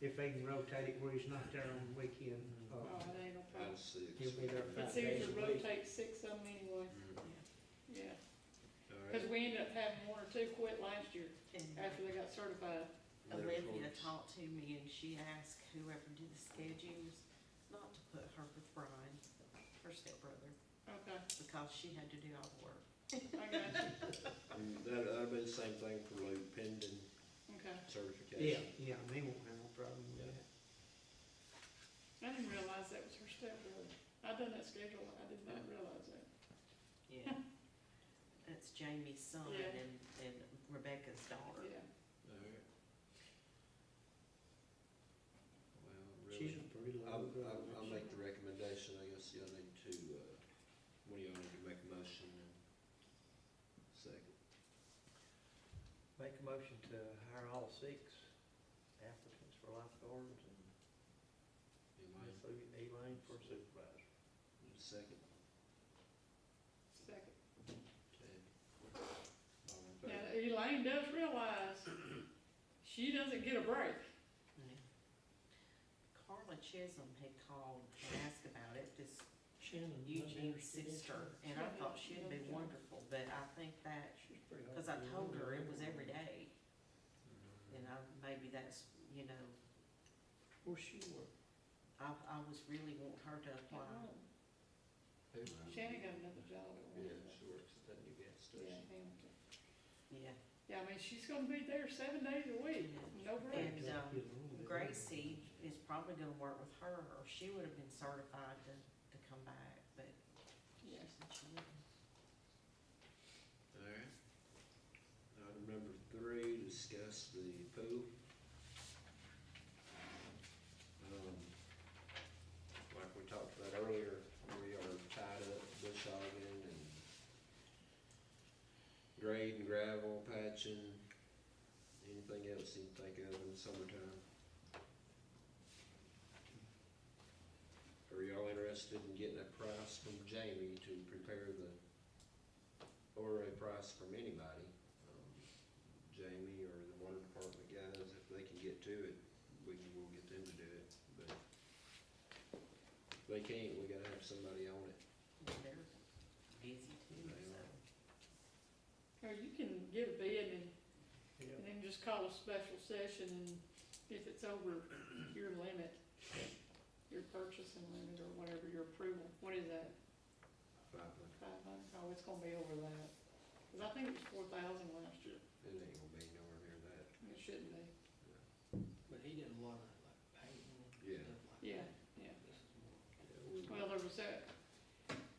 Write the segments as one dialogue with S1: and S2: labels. S1: if they can rotate it where he's not there on the weekend,
S2: Oh,
S1: uh,
S2: it ain't no problem.
S3: Five, six.
S1: he'll be there
S2: But
S1: five days
S3: Mm.
S2: seriously,
S1: a week.
S2: rotate six of them anyway, yeah.
S3: All
S2: Cause
S3: right.
S2: we ended up having one or two quit last year
S4: And
S2: after they got certified.
S3: Letter
S4: Olivia
S3: forms.
S4: talked to me and she asked whoever did the schedules not to put her with Brian, her stepbrother,
S2: Okay,
S4: because she had to do all the work.
S2: I got you,
S3: And That, that'd be the same thing for Lou pending
S2: okay.
S1: Yeah,
S3: certification.
S1: yeah, they won't have no problem with that.
S2: I didn't realize that was her stepbrother. I done that schedule, I did not realize that.
S4: Yeah. That's Jamie's son
S2: Yeah.
S4: and, and Rebecca's daughter.
S2: Yeah,
S3: All right. Well,
S1: She's
S3: really,
S1: a pretty
S3: I,
S1: low
S3: I, I
S1: grade.
S3: make the recommendation, I guess y'all need to, uh, one of y'all need to make a motion and second.
S5: Make a motion to hire all six applicants for lifeguards and
S3: Elaine,
S5: Miss Lou- Elaine for supervisor.
S3: second.
S2: second.
S3: Okay. All in
S2: Now,
S3: favor?
S2: Elaine does realize she doesn't get a break.
S4: Yeah. Carla Chisholm had called and asked about it, this
S1: Shannon,
S4: Eugene's sister, and I thought she'd be wonderful, but I think that, because I told her it was every day, you know, maybe that's, you know,
S1: Well, she worked.
S4: I, I was really wanting her to apply.
S3: Who?
S2: Shannon got another job at
S3: Yeah,
S2: one.
S3: she works at that new gas
S2: Yeah,
S3: station.
S2: Hamilton.
S4: Yeah,
S2: Yeah, I mean, she's gonna be there seven days a week, no break.
S4: And, um, Gracie is probably gonna work with her, or she would have been certified to, to come back, but she
S2: Yeah.
S4: said she wouldn't.
S3: All right. Item number three, discuss the pool. Um, Like we talked about earlier, we are tied up bush hogging and grade and gravel patching, anything else you can think of in the summertime. Are y'all interested in getting a price from Jamie to prepare the or a price from anybody, um, Jamie or the water department guys, if they can get to it, we can, we'll get them to do it, but if they can't, we gotta have somebody on it.
S4: And They're busy too,
S3: They are.
S4: so.
S2: Or you can give a bid and,
S5: Yeah.
S2: and then just call a special session and if it's over your limit, your purchasing limit or whatever, your approval, what is that?
S3: Five
S2: Five hundred? Oh, it's gonna be over that. Cause I think it was four thousand last year.
S3: hundred, it ain't gonna be nowhere near that.
S2: It shouldn't be.
S5: But he did a lot of like painting
S3: Yeah.
S5: and stuff like that.
S2: Yeah, yeah.
S5: This is more-
S3: Yeah, we-
S2: Well, there was that,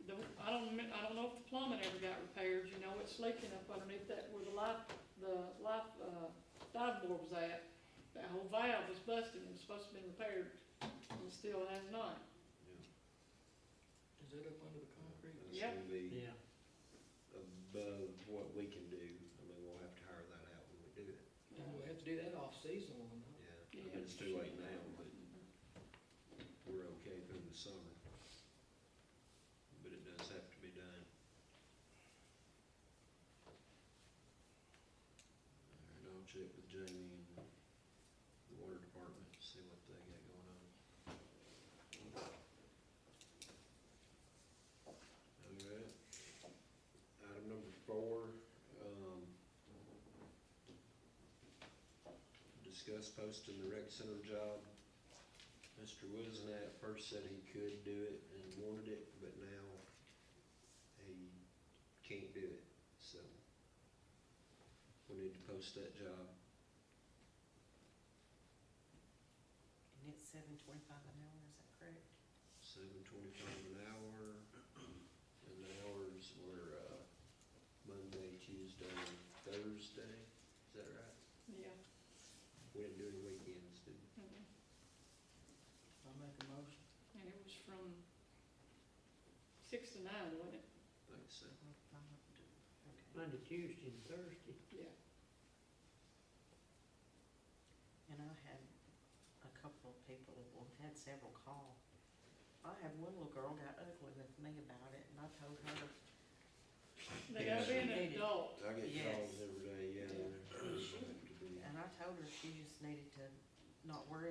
S2: the, I don't, mi- I don't know if the plumbing ever got repaired, you know, it's leaking up underneath that where the life, the life, uh, dive board was at. That whole valve was busted and was supposed to be repaired, and still has not.
S3: yeah. uh,
S5: Is it up under the concrete?
S3: That's
S2: Yeah.
S3: gonna be
S1: Yeah,
S3: above what we can do, I mean, we'll have to hire that out when we do it,
S5: We'll have to do that off-season one, huh?
S3: yeah. I mean, it's too late now, but we're okay through the summer. But it does have to be done. All right, I'll check with Jamie and the water department, see what they got going on. All right. Item number four, um, discuss posting the rec center job Mr. Wisden at first said he could do it and wanted it, but now he can't do it, so we need to post that job.
S4: And it's seven twenty-five an hour, is that correct?
S3: Seven twenty-five an hour, and the hours were, uh, Monday, Tuesday, Thursday, is that right?
S2: Yeah.
S3: We didn't do any weekends, did we?
S2: mhm.
S5: I make a motion.
S2: And it was from six to nine, wasn't it?
S3: Think so.
S4: Well, if I'm not doing- okay.
S1: Monday, Tuesday, and Thursday.
S2: Yeah.
S4: And I had a couple of people, well, I've had several call. I had one little girl got ugly with me about it, and I told her,
S2: They gotta be an
S4: Yeah.
S2: adult.
S3: I get calls
S4: Yes.
S3: every day, yeah, they're, they're going to be.
S4: and I told her she just needed to not worry